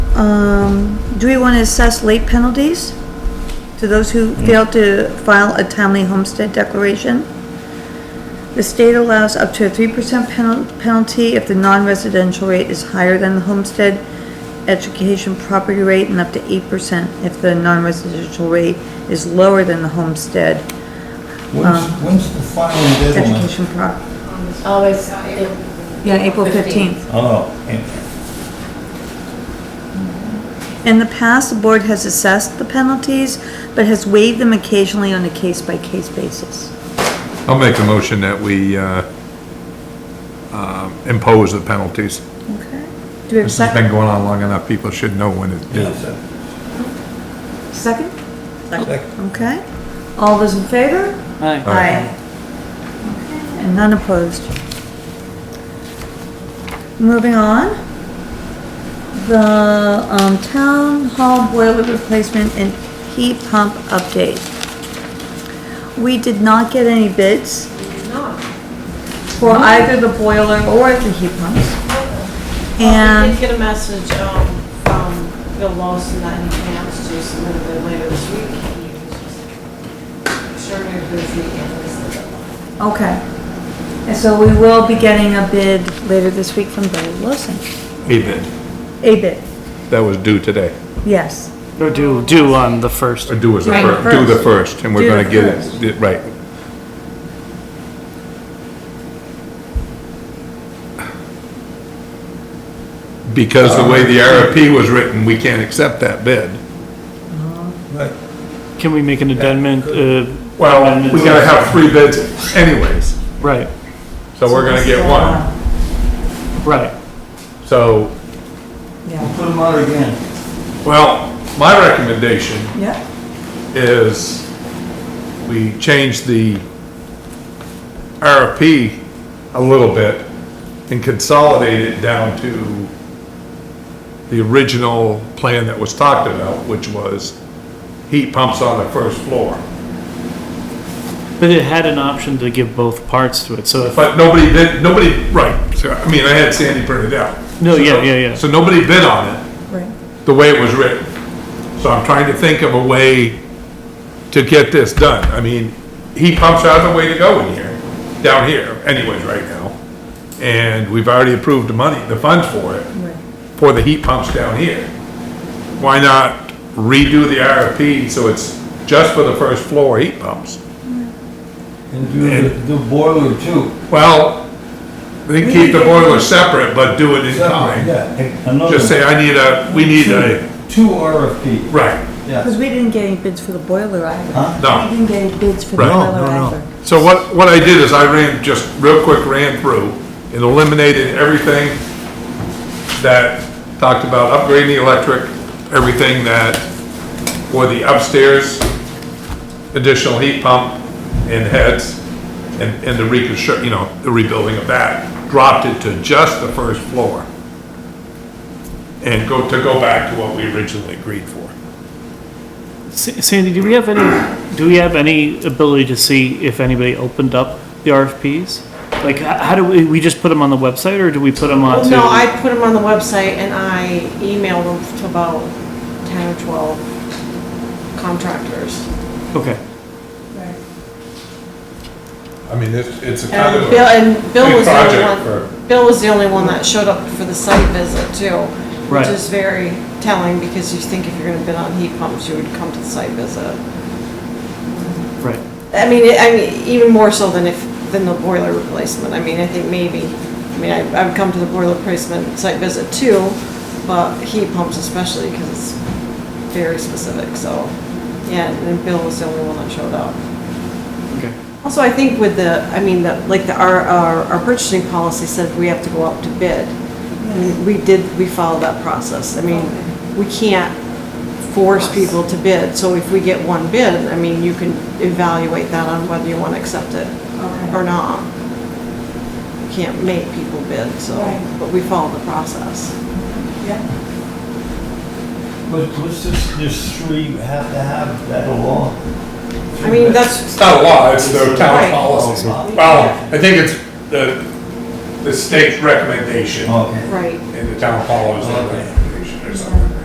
Um, do we want to assess late penalties to those who fail to file a timely homestead declaration? The state allows up to a three percent penalty if the non-residential rate is higher than the homestead education property rate and up to eight percent if the non-residential rate is lower than the homestead Um, When's, when's the final deadline? education prop. Always, Yeah, April fifteenth. Oh, and- In the past, the board has assessed the penalties, but has waived them occasionally on a case-by-case basis. I'll make a motion that we, uh, um, impose the penalties. Okay. Do we have a This has been second? going on long enough, people should know when it's due. yeah, Second? Second. Okay. All those in favor? Aye. Aye. And none opposed. Moving on. The, um, town hall boiler replacement and heat pump update. We did not get any bids for either the boiler or the heat pumps. Well, we And, did get a message, um, from Bill Lawson that he plans to submit a bid later this week. He was just Sure, we're busy and this is okay. And so we will be getting a bid later this week from Bill Wilson. He did. A bid, That was due today. yes. Or do, do on the first. Or due was the Right, first, due the first. first, and we're Due the gonna get first. it, di- right. Because the way the RFP was written, we can't accept that bid. right. Can we make an amendment? uh, amendment- We gotta have three bids anyways, Right, so we're gonna get one. right. So, Yeah, Put them out again. well, my recommendation yeah, is we change the RFP a little bit and consolidate it down to the original plan that was talked about, which was heat pumps on the first floor. But it had an option to give both parts to it, so if, But nobody bid, nobody, right, so, I mean, I had Sandy print it out. No, yeah, yeah, yeah. So nobody bid on it right. the way it was written. So I'm trying to think of a way to get this done. I mean, heat pumps are the way to go in here, down here anyways right now. And we've already approved the money, the funds for it, for the heat pumps down here. Why not redo the RFP so it's just for the first floor heat pumps? And do, the- do boiler too. Well, they keep the boiler separate, but do it in Separate, time. Yeah, and another. Just say, I need a, we need a, Two RFP, right, yeah. Because we didn't get any bids for the boiler either. Huh? no. We didn't get any bids for the Right. boiler either. So what, what I did is I ran, just real quick ran through and eliminated everything that talked about upgrading the electric, everything that, for the upstairs, additional heat pump and heads, and, and the reconstruct, you know, the rebuilding of that, dropped it to just the first floor. And go, to go back to what we originally agreed for. Sa- Sandy, do we have any, do we have any ability to see if anybody opened up the RFPs? Like, h- how do we, we just put them on the website, or do we put them Well, onto? no, I put them on the website and I emailed them to about ten or twelve contractors. Okay, I mean, it's, it's a kind And Um, of. a- Bill, and Bill big was the only project one, Bill was the only one that showed up for the site visit too. Right. Which is very telling because you think if you're gonna bid on heat pumps, you would come to the site visit. right. I mean, it- I mean, even more so than if, than the boiler replacement. I mean, I think maybe, I mean, I, I would come to the boiler replacement site visit too, but heat pumps especially because it's very specific, so, yeah, and Bill was the only one that showed up. Okay. Also, I think with the, I mean, the- like the, our, our our purchasing policy said we have to go out to bid. And we did, we followed that process. I mean, we can't force people to bid. So if we get one bid, I mean, you can evaluate that on whether you want to accept it or not. You Can't make people bid, so, but we followed the process. But what's this, this three have to have that law? I mean, that's, It's not a law, it's the town Right. policy. Well, I think it's the, the state's recommendation Okay. right. and the town follows it. Okay.